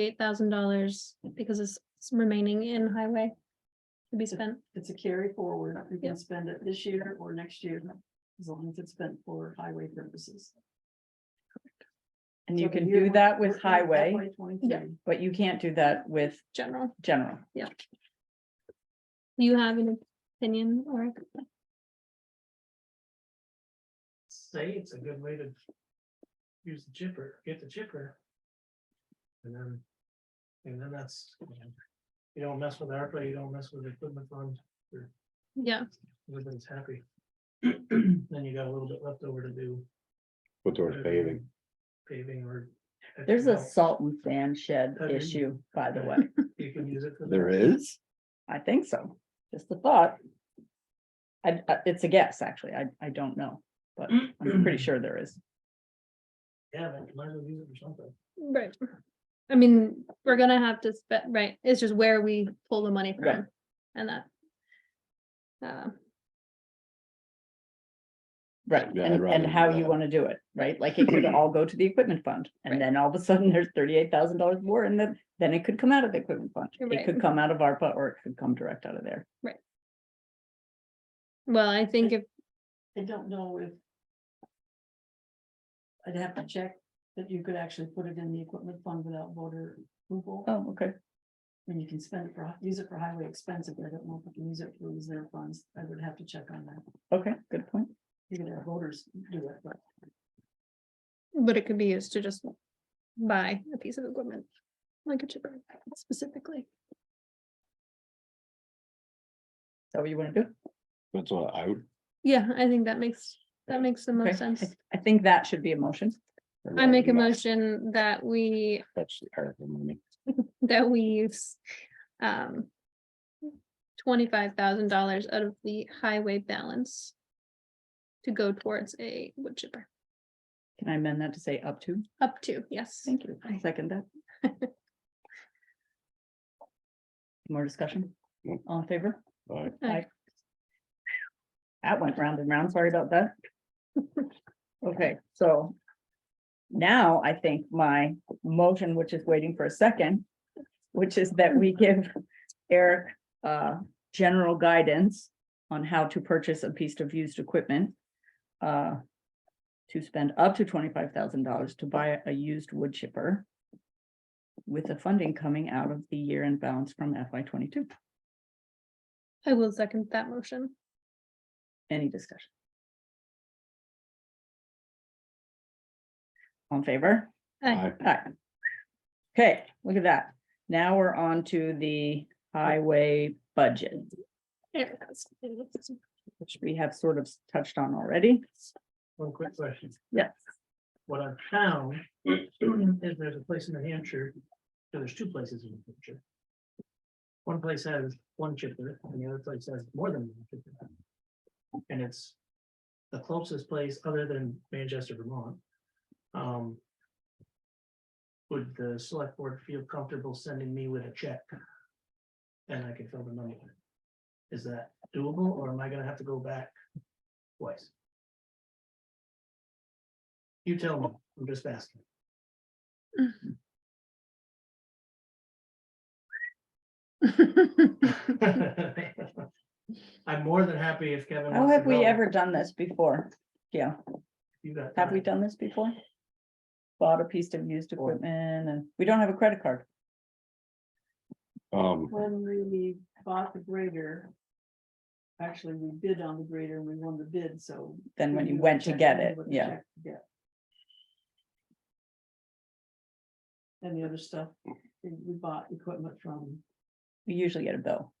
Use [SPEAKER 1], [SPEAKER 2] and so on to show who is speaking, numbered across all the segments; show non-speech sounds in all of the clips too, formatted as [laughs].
[SPEAKER 1] eight thousand dollars because it's it's remaining in highway to be spent.
[SPEAKER 2] It's a carry forward. You
[SPEAKER 1] Yeah.
[SPEAKER 2] can spend it this year or next year, as long as it's spent for highway purposes.
[SPEAKER 3] And you
[SPEAKER 2] So
[SPEAKER 3] can
[SPEAKER 2] year
[SPEAKER 3] do
[SPEAKER 2] one,
[SPEAKER 3] that with
[SPEAKER 2] we're in
[SPEAKER 3] highway,
[SPEAKER 2] FY 23.
[SPEAKER 1] Yeah.
[SPEAKER 3] but you can't do that with
[SPEAKER 1] General,
[SPEAKER 3] general.
[SPEAKER 1] do you have an opinion or?
[SPEAKER 4] say it's a good way to use the chipper, get the chipper. And then, and then that's, you don't mess with ARPA, you don't mess with the equipment fund,
[SPEAKER 1] Yeah,
[SPEAKER 4] everybody's happy. Then you got a little bit left over to do
[SPEAKER 5] put towards paving.
[SPEAKER 4] paving or.
[SPEAKER 3] There's a salt and sand shed
[SPEAKER 4] Okay.
[SPEAKER 3] issue, by
[SPEAKER 5] [laughs]
[SPEAKER 3] the way.
[SPEAKER 4] You can use it for.
[SPEAKER 5] There is?
[SPEAKER 3] I think so. Just a thought. I, I- it's a guess, actually. I, I don't know, but [clears throat] I'm pretty sure there is.
[SPEAKER 4] Yeah, but you might as well use it for something.
[SPEAKER 1] right. I mean, we're gonna have to spend, right, it's just where we pull the money
[SPEAKER 3] Right.
[SPEAKER 1] from and that. Uh,
[SPEAKER 3] Right,
[SPEAKER 5] Yeah, I'd
[SPEAKER 3] and,
[SPEAKER 5] rather
[SPEAKER 3] and
[SPEAKER 5] do
[SPEAKER 3] how you
[SPEAKER 5] that.
[SPEAKER 3] want to do it, right? Like it could all go to the equipment fund
[SPEAKER 1] Right.
[SPEAKER 3] and then all of a sudden there's thirty-eight thousand dollars more and then, then it could come out of the equipment fund.
[SPEAKER 1] Right.
[SPEAKER 3] It could come out of ARPA or it could come direct out of there.
[SPEAKER 1] well, I think if,
[SPEAKER 2] I don't know if. I'd have to check that you could actually put it in the equipment fund without voter approval.
[SPEAKER 3] Oh, okay.
[SPEAKER 2] And you can spend it for, use it for highway expenses, but I don't know if you can use it for reserve funds. I would have to check on that.
[SPEAKER 3] Okay, good point.
[SPEAKER 2] You could have voters do it, but
[SPEAKER 1] but it could be used to just buy a piece of equipment. Like a chipper specifically.
[SPEAKER 3] Is that what you want to do?
[SPEAKER 5] That's what I would.
[SPEAKER 1] Yeah, I think that makes, that makes the
[SPEAKER 3] Okay.
[SPEAKER 1] most sense.
[SPEAKER 3] I- I think that should be a motion.
[SPEAKER 5] I'd
[SPEAKER 1] I make a
[SPEAKER 5] rather not
[SPEAKER 1] motion that we
[SPEAKER 5] Touch the ARPA money.
[SPEAKER 1] that we use um twenty-five thousand dollars out of the highway balance to go towards a wood chipper,
[SPEAKER 3] Can I amend that to say up to?
[SPEAKER 1] up to, yes.
[SPEAKER 3] Thank you. I Second that. [laughs] More discussion?
[SPEAKER 5] Nope.
[SPEAKER 3] All in favor?
[SPEAKER 5] Aye.
[SPEAKER 1] Aye.
[SPEAKER 3] That went round and round. Sorry about that. [laughs] Okay, so now I think my motion, which is waiting for a second, which is that we give Eric uh general guidance on how to purchase a piece of used equipment uh to spend up to twenty-five thousand dollars to buy a used wood chipper with the funding coming out of the year-end balance from FY twenty-two.
[SPEAKER 1] I will second that motion.
[SPEAKER 3] Any discussion? On favor?
[SPEAKER 1] Aye.
[SPEAKER 3] Aye. Okay, look at that. Now we're on to the highway budget,
[SPEAKER 1] Eric has- Is
[SPEAKER 3] which we have sort of touched on already.
[SPEAKER 4] One quick question.
[SPEAKER 3] Yes.
[SPEAKER 4] What I've found is there's a place in New Hampshire, so there's two places in New Hampshire. One place has one chipper and the other place has more than one chipper. And it's the closest place other than Manchester, Vermont. Um. Would the select board feel comfortable sending me with a check? And I can fill the money. in? Is that doable or am I gonna have to go back twice? You tell me, I'm just asking. [laughs] I'm more than happy if Kevin.
[SPEAKER 3] How
[SPEAKER 4] wants to
[SPEAKER 3] have we
[SPEAKER 4] go.
[SPEAKER 3] ever done this before? Yeah,
[SPEAKER 4] You got
[SPEAKER 3] have we
[SPEAKER 4] time.
[SPEAKER 3] done this before? Bought a piece of used equipment and we don't have a credit card.
[SPEAKER 5] Um,
[SPEAKER 2] when we bought the grader. Actually, we bid on the grader and we won the bid, so.
[SPEAKER 3] Then when
[SPEAKER 2] we
[SPEAKER 4] Mm-hmm.
[SPEAKER 3] you
[SPEAKER 2] knew
[SPEAKER 3] went to
[SPEAKER 2] exactly
[SPEAKER 3] get it,
[SPEAKER 2] what the
[SPEAKER 3] yeah.
[SPEAKER 2] check to get. And the other stuff, we we bought equipment from,
[SPEAKER 3] We usually get a bill.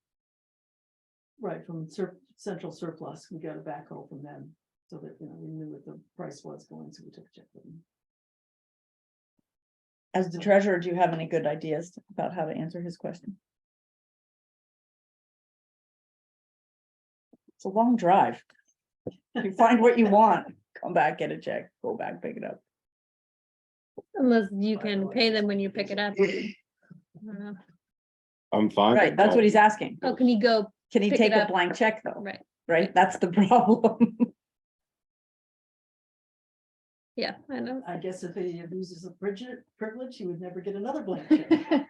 [SPEAKER 2] right, from sur- central surplus, we got a backhoe from them. So that, you know, we knew what the price was going, so we took a check. from them.
[SPEAKER 3] As the treasurer, do you have any good ideas about how to answer his question? It's a long drive. You find what you want, come back, get a check, go back, pick it up.
[SPEAKER 1] [laughs] Unless you can pay them when you pick it up. I don't know.
[SPEAKER 5] I'm fine.
[SPEAKER 3] Right, that's what he's asking.
[SPEAKER 1] Oh, can you go,
[SPEAKER 3] Can he
[SPEAKER 1] Pick
[SPEAKER 3] take
[SPEAKER 1] it
[SPEAKER 3] a
[SPEAKER 1] up.
[SPEAKER 3] blank check though? [laughs]
[SPEAKER 1] right,
[SPEAKER 3] Right, that's the problem.
[SPEAKER 1] yeah, I know. [laughs]
[SPEAKER 2] I guess if he abuses a Bridget privilege, he would never get another blank check.